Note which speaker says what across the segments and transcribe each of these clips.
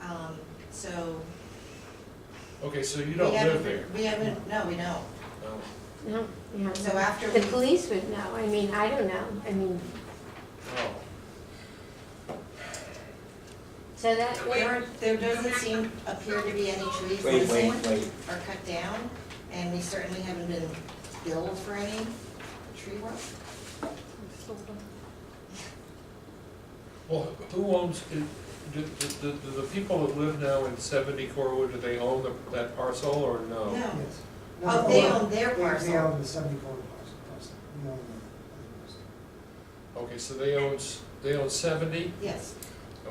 Speaker 1: Um, so.
Speaker 2: Okay, so you
Speaker 1: we
Speaker 2: don't live
Speaker 1: haven't-
Speaker 2: there?
Speaker 1: We haven't, no, we don't.
Speaker 2: No.
Speaker 3: No, no.
Speaker 1: So after
Speaker 3: The
Speaker 1: we-
Speaker 3: police would know, I mean, I don't know, I mean,
Speaker 2: Oh,
Speaker 3: so that,
Speaker 1: There, there doesn't seem, appear to be any trees
Speaker 4: Wait, wait,
Speaker 1: missing
Speaker 4: wait.
Speaker 1: or cut down, and we certainly haven't been billed for any tree work.
Speaker 2: well, who owns, do, do, do, do the people that live now in seventy Corwood, do they own the- that parcel or no?
Speaker 1: No,
Speaker 5: Yes.
Speaker 1: oh, they own their
Speaker 5: They- They
Speaker 1: parcel,
Speaker 5: own the seventy-four parcel, parcel, we own the.
Speaker 2: Okay, so they owns, they own seventy,
Speaker 1: yes,
Speaker 6: Is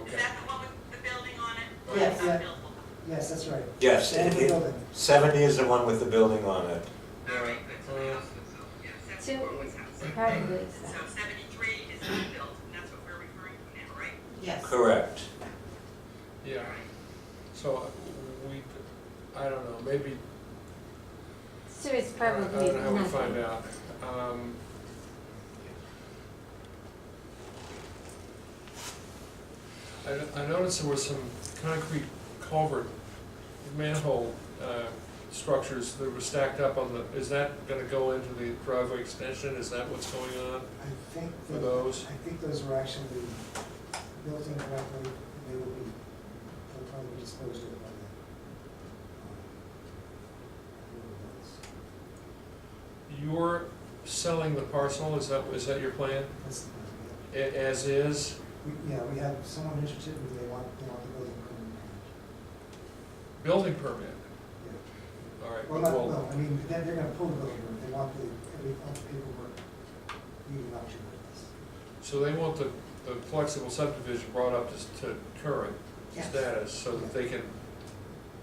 Speaker 2: okay.
Speaker 6: that the one with the building on it? Or
Speaker 1: Yes.
Speaker 6: is that buildable?
Speaker 5: Yes, that's right.
Speaker 4: Yes,
Speaker 5: And
Speaker 4: it-
Speaker 5: the
Speaker 4: it-
Speaker 5: building.
Speaker 4: Seventy is the one with the building on it.
Speaker 6: All right, good, so the
Speaker 2: Uh,
Speaker 6: house was sold, yeah, that's
Speaker 3: So-
Speaker 6: what was house.
Speaker 3: probably is
Speaker 6: So
Speaker 3: that.
Speaker 6: seventy-three is not built, and that's what we're referring to now, right?
Speaker 1: yes.
Speaker 4: Correct.
Speaker 2: Yeah, so we, I don't know, maybe,
Speaker 3: So it's
Speaker 2: I don't
Speaker 3: probably
Speaker 2: know how we find
Speaker 3: nothing.
Speaker 2: out. Um, I, I noticed there were some concrete culvert manhole, uh, structures that were stacked up on the, is that gonna go into the driveway extension? Is that what's going on?
Speaker 5: I think.
Speaker 2: For
Speaker 5: that-
Speaker 2: those?
Speaker 5: I think those were actually built incorrectly, and they will be, they'll probably be disposed of by then. Um, I don't know what else.
Speaker 2: You're selling the parcel, is that, is that your plan?
Speaker 5: That's the plan, yeah.
Speaker 2: A- as is?
Speaker 5: We- Yeah, we have someone interested, and they want, they want the building permanent.
Speaker 2: Building permit,
Speaker 5: Yeah.
Speaker 2: all right.
Speaker 5: Well, not, no, I mean, they're, they're gonna pull the building, permit. they want the, every, all the paperwork, leading up to this.
Speaker 2: So they want the, the flexible subdivision brought up to, s- to current
Speaker 1: Yes.
Speaker 2: status, so that they can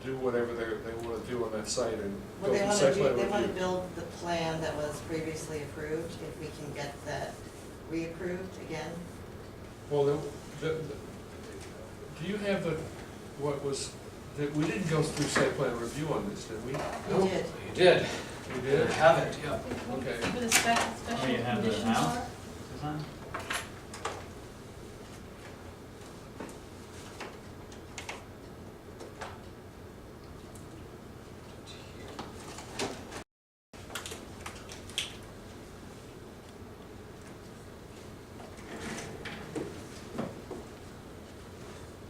Speaker 2: do whatever they, they wanna do on that site and
Speaker 1: Well, they
Speaker 2: go through
Speaker 1: want to
Speaker 2: site
Speaker 1: do,
Speaker 2: plan
Speaker 1: they want to
Speaker 2: review.
Speaker 1: build the plan that was previously approved, if we can get that reapproved again.
Speaker 2: Well, the, the, the- do you have the, what was, that, we didn't go through site plan review on this, did we?
Speaker 1: We did,
Speaker 7: You did.
Speaker 2: We
Speaker 7: You
Speaker 2: did?
Speaker 7: have it, yeah.
Speaker 2: Okay.
Speaker 8: For the spe-
Speaker 9: Oh, you
Speaker 8: special
Speaker 9: have the
Speaker 8: conditions
Speaker 9: house?
Speaker 8: are,
Speaker 9: Design?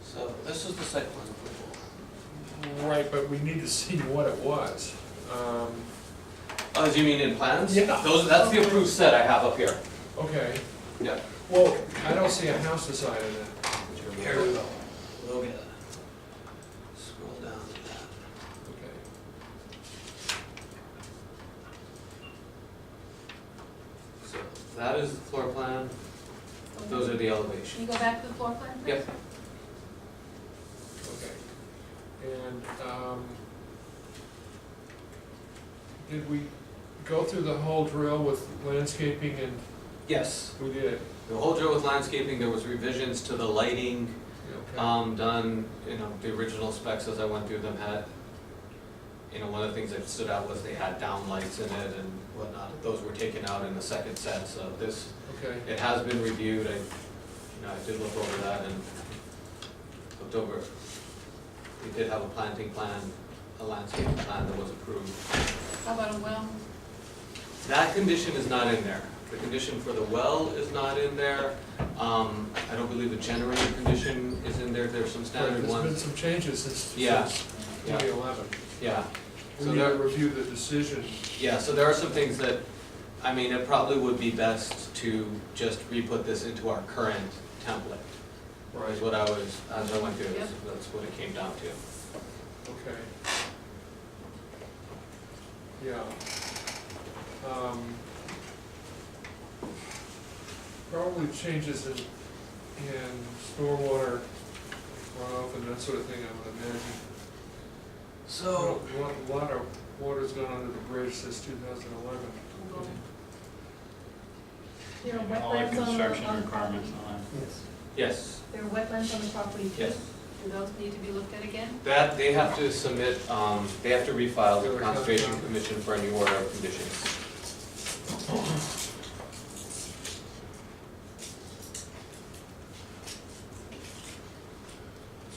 Speaker 7: So this is the site plan approval.
Speaker 2: Right, but we need to see what it was. Um,
Speaker 7: Oh, do you mean in plans?
Speaker 2: Yeah.
Speaker 7: Those, that's the approved set I have up here.
Speaker 2: okay,
Speaker 7: Yeah.
Speaker 2: well, I don't see a house design in that.
Speaker 7: Here we go. We'll get it. Scroll down to that.
Speaker 2: Okay.
Speaker 7: So that is the floor plan, those are the
Speaker 8: Can
Speaker 7: elevations.
Speaker 8: you go back to the floor plan, please?
Speaker 7: Yep.
Speaker 2: Okay, and, um, did we go through the whole drill with landscaping and
Speaker 7: Yes.
Speaker 2: we did?
Speaker 7: The whole drill with landscaping, there was revisions to the lighting,
Speaker 2: Okay.
Speaker 7: um, done, you know, the original specs as I went through them had, you know, one of the things that stood out was they had downlights in it and whatnot. Those were taken out in the second set, so this,
Speaker 2: Okay,
Speaker 7: it has been reviewed, I, you know, I did look over that and looked over. We did have a planting plan, a landscaping plan that was approved.
Speaker 8: How about a well?
Speaker 7: That condition is not in there. The condition for the well is not in there. Um, I don't believe the generator condition is in there. There's some
Speaker 2: Right,
Speaker 7: standard
Speaker 2: there's been
Speaker 7: ones.
Speaker 2: some changes since,
Speaker 7: Yeah.
Speaker 2: since
Speaker 7: Yeah.
Speaker 2: twenty eleven.
Speaker 7: Yeah,
Speaker 2: We
Speaker 7: So
Speaker 2: need to
Speaker 7: there-
Speaker 2: review the decision,
Speaker 7: yeah, so there are some things that, I mean, it probably would be best to just re-put this into our current template,
Speaker 2: right,
Speaker 7: is what I was, as I went through,
Speaker 8: Yep.
Speaker 7: this. that's what it came down to.
Speaker 2: okay. Yeah. Um, Probably changes in, in stormwater runoff and that sort of thing, I would imagine.
Speaker 7: So.
Speaker 2: A lot- a lot of water's gone under the bridge since two thousand eleven.
Speaker 8: There are
Speaker 9: All the
Speaker 8: wetlands on the,
Speaker 9: construction
Speaker 8: on the
Speaker 9: requirements
Speaker 8: property?
Speaker 9: and all that.
Speaker 5: Yes.
Speaker 7: Yes,
Speaker 8: There are wetlands on the property? too?
Speaker 7: Yes.
Speaker 8: Do those need to be looked at again?
Speaker 7: that, they have to submit, um, they have to refile with the Conservation Commission for a new order of conditions.